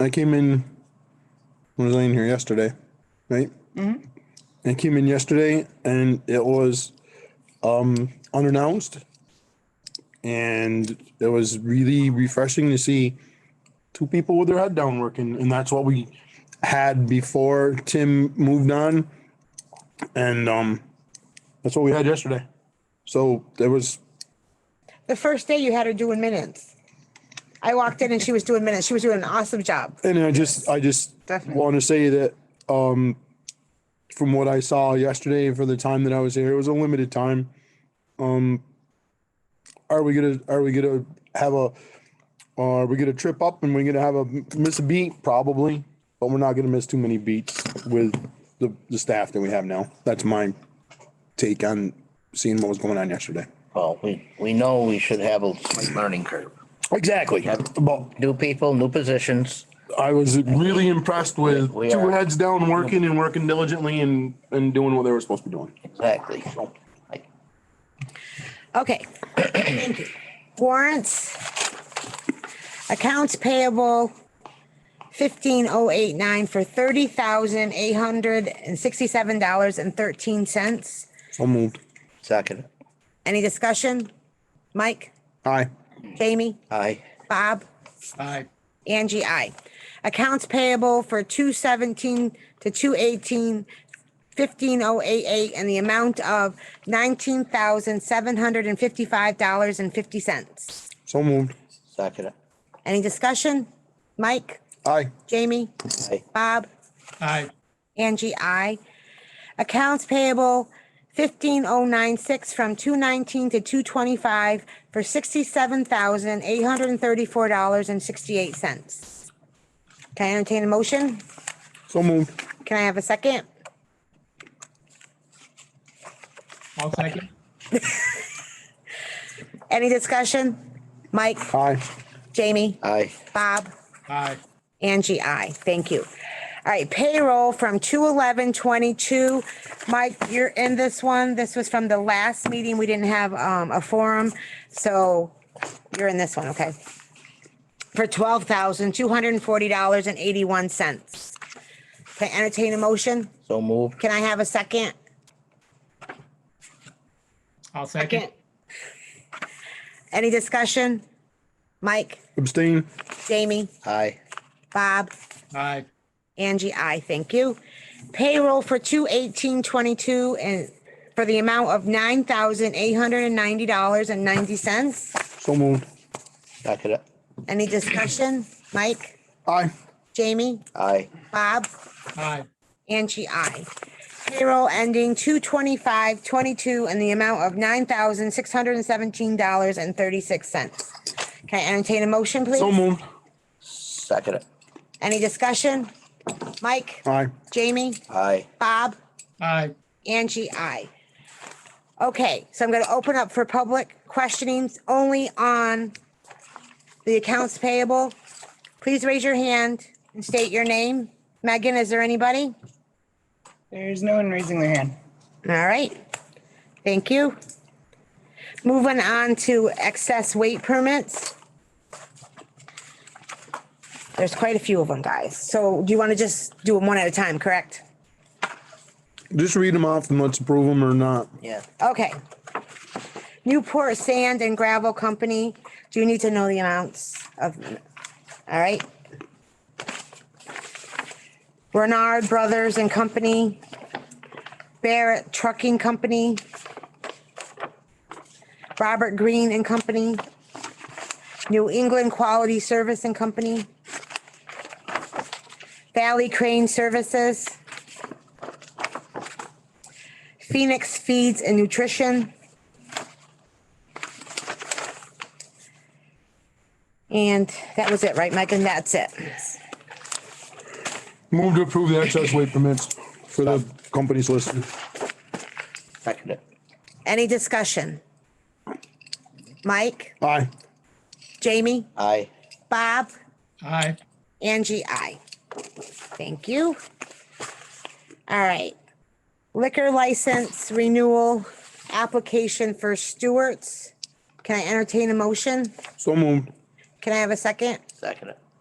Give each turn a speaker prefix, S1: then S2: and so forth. S1: I came in, I was laying here yesterday, right? I came in yesterday and it was um, unannounced. And it was really refreshing to see two people with their head down working. And that's what we had before Tim moved on. And um, that's what we had yesterday. So there was,
S2: The first day you had her doing minutes. I walked in and she was doing minutes. She was doing an awesome job.
S1: and I just, I just
S2: Definitely.
S1: want to say that um, from what I saw yesterday and for the time that I was here, it was a limited time. Um, are we gonna are we gonna have a uh, are we gonna trip up and we're gonna have a miss a beat probably, but we're not gonna miss too many beats with the the staff that we have now. That's my take on seeing what was going on yesterday.
S3: Well, we, we know we should have a slight learning curve.
S1: Exactly. Well,
S3: New people, new positions.
S1: I was really impressed with
S3: We
S1: two
S3: are-
S1: heads down working and working diligently and and doing what they were supposed to be doing.
S3: Exactly. Like,
S2: Okay. Thank you. Warrants. Accounts payable fifteen oh eight nine for thirty thousand eight hundred and sixty-seven dollars and thirteen cents.
S1: So moved.
S3: Second.
S2: Any discussion? Mike,
S1: Aye.
S2: Jamie,
S3: Aye.
S2: Bob?
S4: Aye.
S2: Angie, I. Accounts payable for two seventeen to two eighteen, fifteen oh eight eight, and the amount of nineteen thousand seven hundred and fifty-five dollars and fifty cents.
S1: So moved.
S3: Second.
S2: Any discussion? Mike,
S1: Aye.
S2: Jamie,
S3: Aye.
S2: Bob,
S4: Aye.
S2: Angie, I. Accounts payable fifteen oh nine six from two nineteen to two twenty-five for sixty-seven thousand eight hundred and thirty-four dollars and sixty-eight cents. Can I entertain a motion?
S1: So moved.
S2: Can I have a second?
S4: I'll second.
S2: Any discussion? Mike,
S1: Aye.
S2: Jamie,
S3: Aye.
S2: Bob,
S4: Aye.
S2: Angie, I. Thank you. All right, payroll from two eleven twenty-two. Mike, you're in this one. This was from the last meeting. We didn't have um a forum, so you're in this one, okay? For twelve thousand two hundred and forty dollars and eighty-one cents. Can I entertain a motion?
S3: So moved.
S2: Can I have a second?
S4: I'll second.
S2: Any discussion? Mike,
S1: Abstain.
S2: Jamie,
S3: Aye.
S2: Bob?
S4: Aye.
S2: Angie, I thank you. Payroll for two eighteen twenty-two and for the amount of nine thousand eight hundred and ninety dollars and ninety cents.
S1: So moved.
S3: Second.
S2: Any discussion? Mike,
S1: Aye.
S2: Jamie,
S3: Aye.
S2: Bob,
S4: Aye.
S2: Angie, I. Payroll ending two twenty-five twenty-two and the amount of nine thousand six hundred and seventeen dollars and thirty-six cents. Can I entertain a motion,
S1: So
S2: please?
S1: moved.
S3: Second.
S2: Any discussion? Mike,
S1: Aye.
S2: Jamie,
S3: Aye.
S2: Bob?
S4: Aye.
S2: Angie, I. Okay, so I'm going to open up for public questionings only on the accounts payable. Please raise your hand and state your name. Megan, is there anybody?
S5: There's no one raising their hand.
S2: All right, thank you. Moving on to excess weight permits. There's quite a few of them, guys. So do you want to just do them one at a time, correct?
S1: Just read them off and let's approve them or not.
S3: Yeah.
S2: Okay. Newport Sand and Gravel Company, do you need to know the amounts of, all right? Bernard Brothers and Company, Barrett Trucking Company, Robert Green and Company, New England Quality Service and Company, Valley Crane Services, Phoenix Feeds and Nutrition. And that was it, right, Megan? That's it.
S1: Move to approve the excess weight permits for the companies listed.
S3: Second.
S2: Any discussion? Mike,
S1: Aye.
S2: Jamie,
S3: Aye.
S2: Bob,
S4: Aye.
S2: Angie, I. Thank you. All right. Liquor license renewal application for Stewart's. Can I entertain a motion?
S1: So moved.
S2: Can I have a second?
S3: Second.